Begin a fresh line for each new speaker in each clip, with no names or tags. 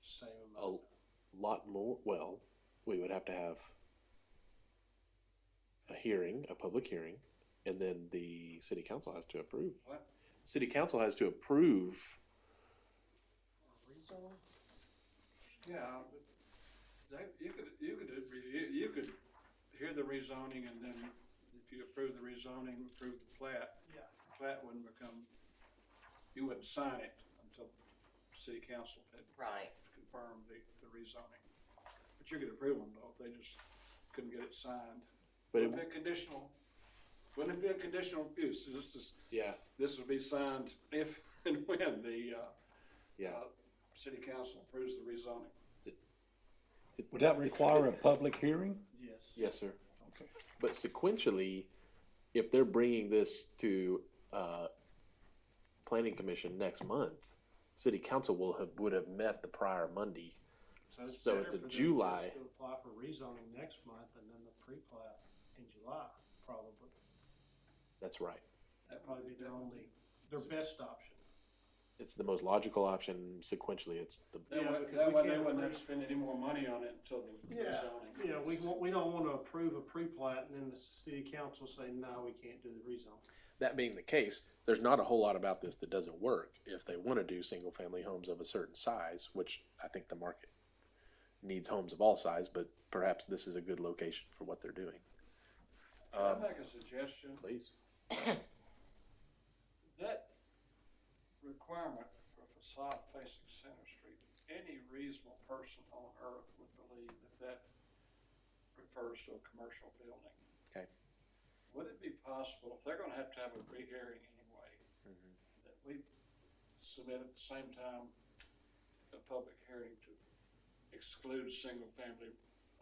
same
a
amount.
lot more, well, we would have to have a hearing, a public hearing, and then the city council has to approve.
What?
City council has to approve,
Rezone? Yeah, but that, you could, you could, uh, you, you could hear the rezoning and then if you approve the rezoning, approve the plat.
Yeah.
The Plat wouldn't become, you wouldn't sign it until city council had
Right.
confirmed the, the rezoning. But you could approve them both, they just couldn't get it signed.
but
Wouldn't
it,
it be conditional, wouldn't it be a conditional use, this is,
yeah,
this would be signed if and when the, uh,
yeah.
uh, City council approves the rezoning.
Would that require a public hearing?
Yes.
Yes, sir.
Okay.
But sequentially, if they're bringing this to, uh, planning commission next month, city council will have, would have met the prior Monday. So
better
it's a
for them
July.
just to Apply for rezoning next month and then the pre-plat in July, probably.
That's right.
That'd probably be their only, their best option.
It's the most logical option. Sequentially, it's the
That
Yeah,
way,
because
that
we
way they
can't
wouldn't have
approve-
to spend any more money on it until the
Yeah,
rezoning.
yeah, we won't, we don't wanna approve a pre-plat and then the city council say, no, we can't do the rezon.
that being the case, there's not a whole lot about this that doesn't work if they want to do single family homes of a certain size, which I think the market needs homes of all size, but perhaps this is a good location for what they're doing.
I'd make a suggestion,
Please.
that requirement for facade facing Center Street, any reasonable person on earth would believe that that refers to a commercial building.
Okay.
Would it be possible, if they're gonna have to have a rehearing anyway,
Mm-hmm.
that we submit at the same time a public hearing to exclude single-family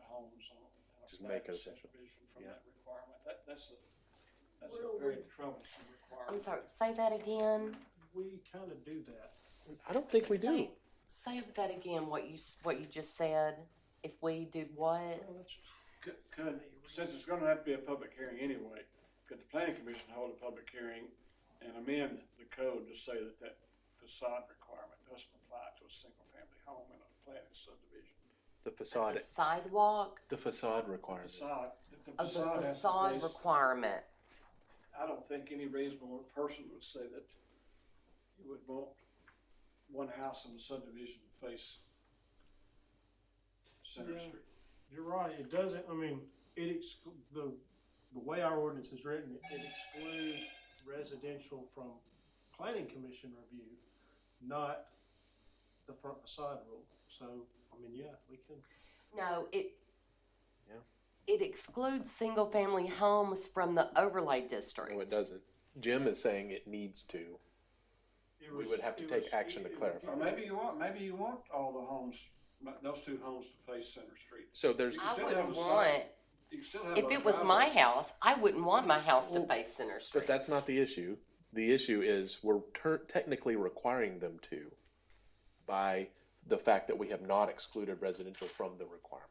homes on on a
Just make it
static
official.
subdivision from
Yeah.
that requirement? That, that's a, that's
Well,
a very troublesome requirement.
I'm sorry, say that again.
We kinda do that.
I don't think we do.
Say- Say that again, what you, s- what you just said. If we do what?
Could, could, since it's gonna have to be a public hearing anyway, could the planning commission hold a public hearing and amend the code to say that that facade requirement doesn't apply to a single-family home in a planted subdivision?
The facade,
The sidewalk?
the facade requirement.
Facade, that the
Oh, the
facade has to
facade
face,
requirement.
I don't think any reasonable person would say that you would want one house in a subdivision to face Center
Yeah.
Street.
You're right, it doesn't, I mean, it exclu- the, the way our ordinance is written, it excludes residential from planning commission review, not the front facade rule. So, I mean, yeah, we can,
No, it.
Yeah.
It excludes single-family homes from the overlay district.
No, it doesn't. Jim is saying it needs to.
it
We
was-
would have to
it
take
was-
action
it-
to
it-
clarify.
Or maybe you want, maybe you want all the homes, those two homes to face Center Street.
So there's,
You
I
still
wouldn't
have a side-
want,
You can still have
if
a
it was
driveway.
my house, I wouldn't want my house to
Well,
face Center Street.
but that's not the issue. The issue is we're ter- technically requiring them to by the fact that we have not excluded residential from the requirement.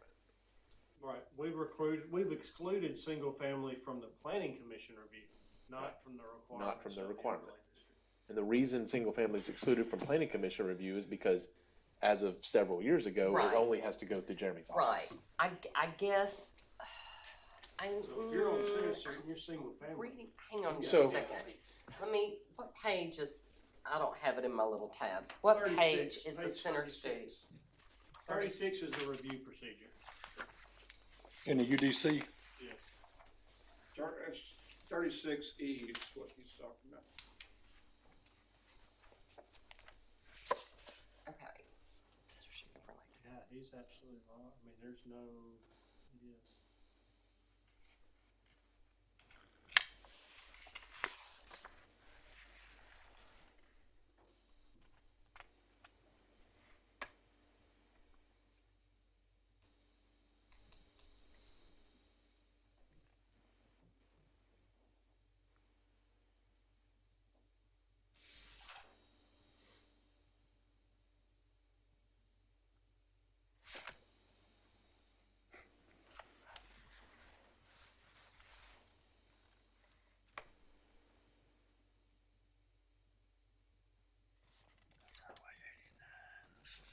Right, we've recruited, we've excluded single-family from the planning commission review, not from the requirements.
Not from the
of
requirement.
overlay district.
And the reason single family is excluded from planning commission review is because as of several years ago,
Right.
it only has to go through Jeremy's
Right,
office.
I, I guess, I,
So if you're on Center
mm,
Street and you're single-family,
reading, hang on just
So-
a second. Let me, what page is, I don't have it in my little tabs. What page
36,
is the
page
Center
36.
Street?
Thirty-six is the review procedure,
In the UDC?
yes.
uh, Thirty-six E is what he's talking about.
Okay. Center Street overlay.
Yeah, he's absolutely right. I mean, there's no, yes.